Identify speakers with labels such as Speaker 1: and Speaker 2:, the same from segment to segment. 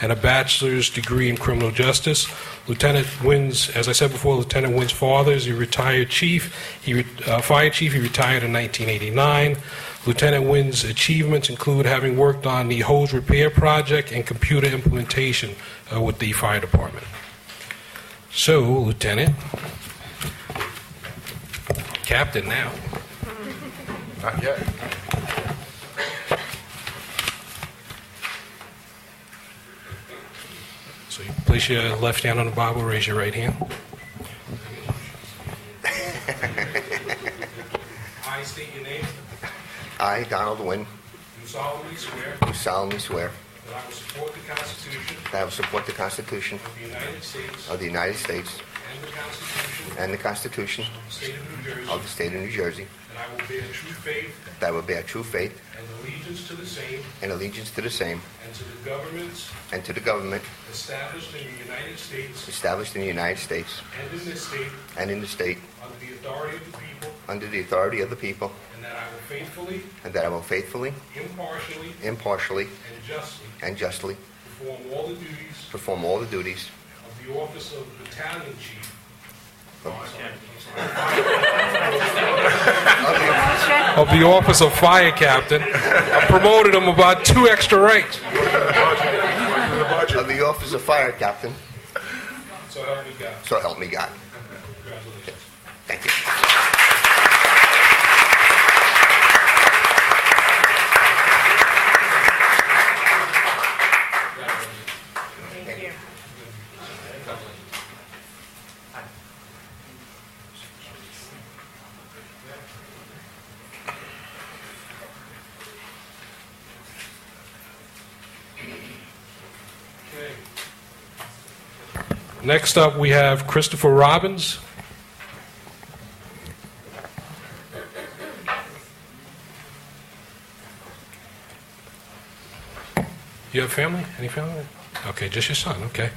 Speaker 1: and a bachelor's degree in criminal justice. Lieutenant Wynn's, as I said before, Lieutenant Wynn's father is a retired chief, he, re- uh, fire chief, he retired in 1989. Lieutenant Wynn's achievements include having worked on the hose repair project and computer implementation uh, with the fire department. So, Lieutenant, Captain now.
Speaker 2: Not yet.
Speaker 1: So you place your left hand on the Bible, raise your right hand. I state your name.
Speaker 2: I, Donald Wynn,
Speaker 1: Do solemnly swear
Speaker 2: do solemnly swear
Speaker 1: that I will support the Constitution
Speaker 2: that I will support the Constitution
Speaker 1: of the United States
Speaker 2: of the United States
Speaker 1: and the Constitution
Speaker 2: and the Constitution
Speaker 1: of the State of New Jersey,
Speaker 2: of the State of New Jersey,
Speaker 1: and I will bear true faith
Speaker 2: that I will bear true faith
Speaker 1: and allegiance to the same
Speaker 2: and allegiance to the same
Speaker 1: and to the governments
Speaker 2: and to the government
Speaker 1: established in the United States
Speaker 2: established in the United States
Speaker 1: and in this state
Speaker 2: and in the state
Speaker 1: under the authority of the people,
Speaker 2: under the authority of the people,
Speaker 1: and that I will faithfully,
Speaker 2: and that I will faithfully,
Speaker 1: impartially,
Speaker 2: impartially,
Speaker 1: and justly
Speaker 2: and justly
Speaker 1: perform all the duties
Speaker 2: perform all the duties
Speaker 1: of the office of battalion chief.
Speaker 2: of the-
Speaker 1: Of the office of fire captain. I promoted him about two extra ranks.
Speaker 2: of the office of fire captain,
Speaker 1: So help me God.
Speaker 2: so help me God.
Speaker 1: Congratulations.
Speaker 2: Thank you.
Speaker 1: Next up, we have Christopher Robbins. You have family? Any family? Okay, just your son, okay.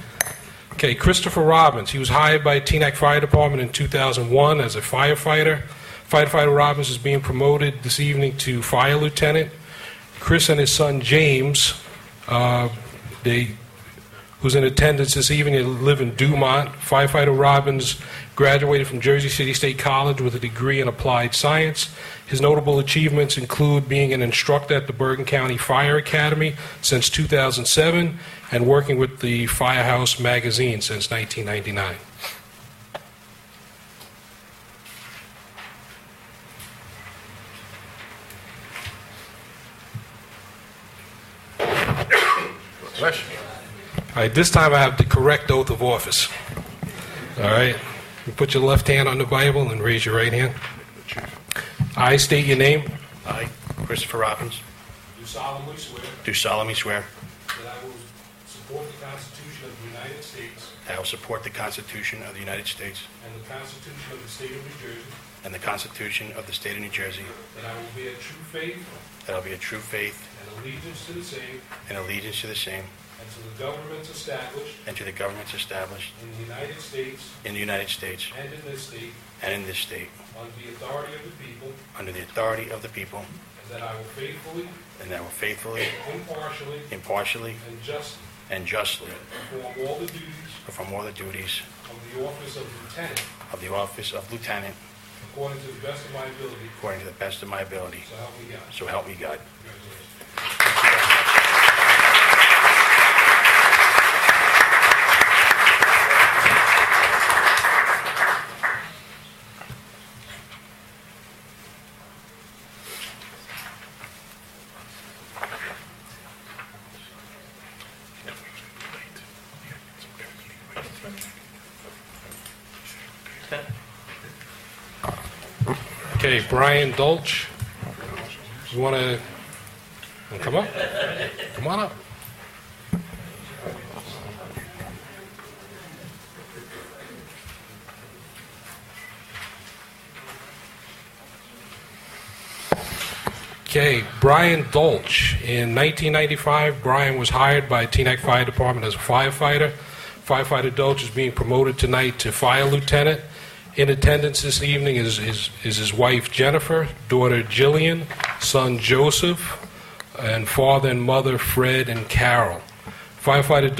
Speaker 1: Okay, Christopher Robbins, he was hired by Teaneck Fire Department in 2001 as a firefighter. Firefighter Robbins is being promoted this evening to fire lieutenant. Chris and his son James, uh, they who's in attendance this evening. They live in Dumont. Firefighter Robbins graduated from Jersey City State College with a degree in applied science. His notable achievements include being an instructor at the Bergen County Fire Academy since 2007 and working with the Firehouse magazine since 1999. All right, this time I have the correct oath of office. All right? You put your left hand on the Bible and raise your right hand. I state your name.
Speaker 3: I, Christopher Robbins,
Speaker 1: Do solemnly swear
Speaker 3: do solemnly swear
Speaker 1: that I will support the Constitution of the United States
Speaker 3: that I will support the Constitution of the United States
Speaker 1: and the Constitution of the State of New Jersey,
Speaker 3: and the Constitution of the State of New Jersey,
Speaker 1: that I will bear true faith
Speaker 3: that I will be a true faith
Speaker 1: and allegiance to the same
Speaker 3: and allegiance to the same
Speaker 1: and to the governments established
Speaker 3: and to the governments established
Speaker 1: in the United States
Speaker 3: in the United States
Speaker 1: and in this state
Speaker 3: and in this state,
Speaker 1: under the authority of the people,
Speaker 3: under the authority of the people,
Speaker 1: and that I will faithfully,
Speaker 3: and that I will faithfully,
Speaker 1: impartially,
Speaker 3: impartially,
Speaker 1: and justly
Speaker 3: and justly
Speaker 1: perform all the duties
Speaker 3: perform all the duties
Speaker 1: of the office of lieutenant
Speaker 3: of the office of lieutenant
Speaker 1: according to the best of my ability,
Speaker 3: according to the best of my ability.
Speaker 1: so help me God.
Speaker 3: So help me God.
Speaker 1: Congratulations. Okay, Brian Dolch. You want to come up? Come on up. Okay, Brian Dolch. In 1995, Brian was hired by Teaneck Fire Department as a firefighter. Firefighter Dolch is being promoted tonight to fire lieutenant. In attendance this evening is, is, is his wife Jennifer, daughter Jillian, son Joseph, and father and mother Fred and Carol. Firefighter